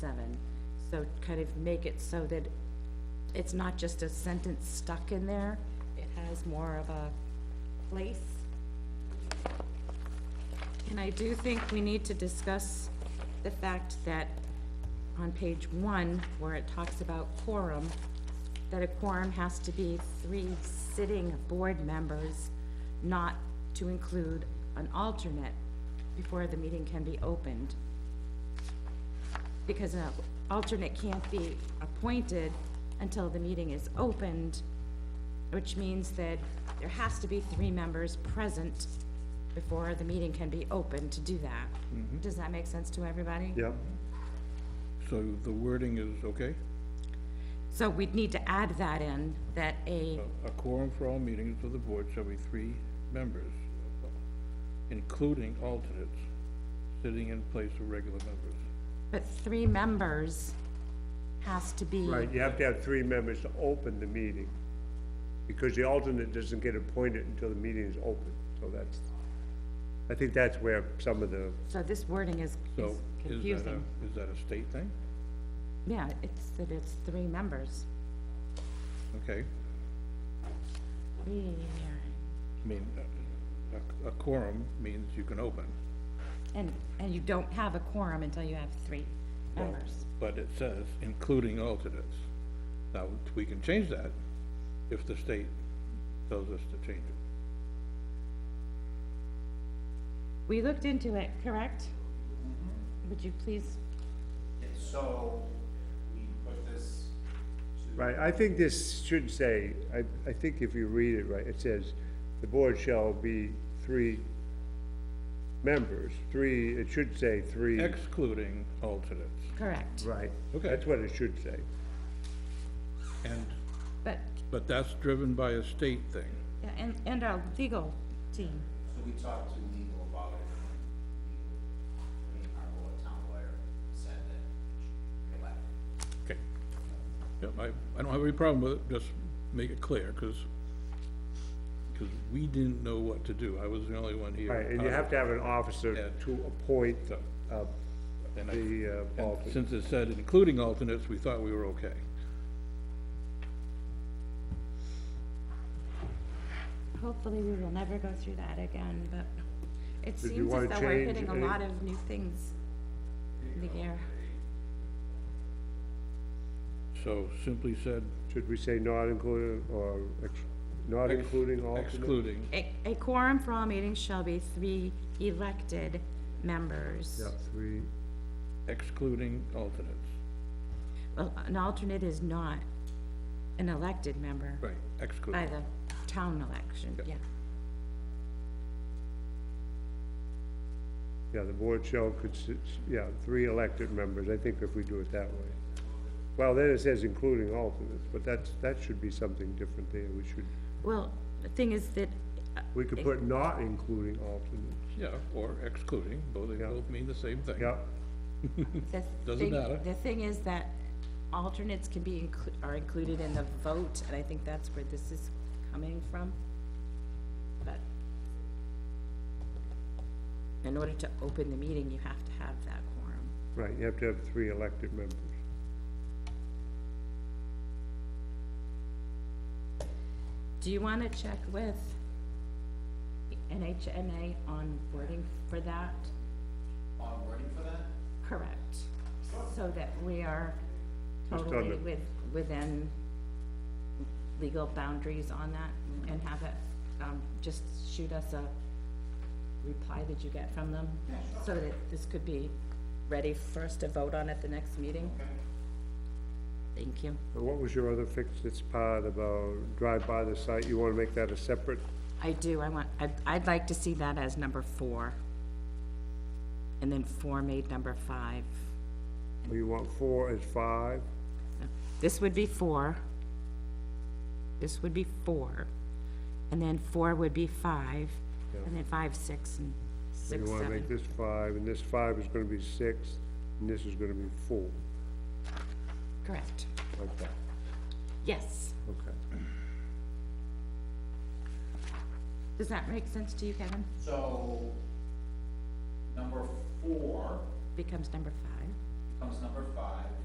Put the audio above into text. So kind of make it so that it's not just a sentence stuck in there, it has more of a place. And I do think we need to discuss the fact that on page one, where it talks about quorum, that a quorum has to be three sitting board members, not to include an alternate before the meeting can be opened because an alternate can't be appointed until the meeting is opened, which means that there has to be three members present before the meeting can be opened to do that. Mm-hmm. Does that make sense to everybody? Yeah. So the wording is okay? So we'd need to add that in, that a, A quorum for all meetings of the board shall be three members, including alternates, sitting in place of regular members. but three members has to be, Right, you have to have three members to open the meeting, because the alternate doesn't get appointed until the meeting is open, so that's, I think that's where some of the, so this wording is So is is that a, confusing. is that a state thing? Yeah, it's, that it's three members. Okay, Three, I mean, a, a quorum means you can open. And, and you don't have a quorum until you have three members. But it says including alternates. Now, we can change that if the state tells us to change it. We looked into it, correct? Mm-hmm. Would you please, And so we put this to, right, I think this should say, I, I think if you read it right, it says, the board shall be three members, three, it should say three, Excluding alternates. correct, right? Okay. That's what it should say. And, but, but that's driven by a state thing. yeah, and, and our legal team, so we talked to legal about it. and legal- I mean, our lawyer, town lawyer said that it should be left. Okay. Yep, I, I don't have any problem with it, just make it clear, because, we didn't know what to do. I was the only one here. Right, and you have to have an Yeah. officer to appoint, uh, And I- the, uh, and alternate. Since it said including alternates, we thought we were okay. hopefully we will never go through that again, but it Did you seems as wanna though we're change hitting a any- lot of new things in the air. So simply said. Should we say not including, or ex- not ex- including alternate? Excluding, A, a quorum for all meetings shall be three elected members. Yeah, three, excluding alternates. Well, an alternate is not an elected member Right, by excluding. the town election, yeah. yeah, the board shall consist, yeah, three elected members, I think if we do it that way. Well, then it says including alternates, but that's, that should be something different there, we should, Well, the thing is that, uh, we could put not including alternates, Yeah, or excluding, both, they Yeah. both mean the same thing. yeah, The Doesn't thing- matter. The thing is that alternates can be, inclu- are included in the vote, and I think that's where this is coming from. But in order to open the meeting, you have to have that quorum. right, you have to have three elected members. Do you want to check with NHMA on wording for that? On wording for that? Correct. So that we are Just on totally the- with, within legal boundaries on that and have it, um, just shoot us a reply that you get from them. So that this could be ready for us to vote on at the next meeting. Thank you. And what was your other fix, this part about drive by the site, you wanna make that a separate, I do, I want, I'd, I'd like to see that as number four. And then four made number five. or you want four as five? This would be four. This would be four. And then four would be five, and then five, six, and So six, You wanna make seven. this five, and this five is gonna be six, and this is gonna be four, Correct. like that, Yes. okay. Does that make sense to you, Kevin? So, number four Becomes number five. becomes number five,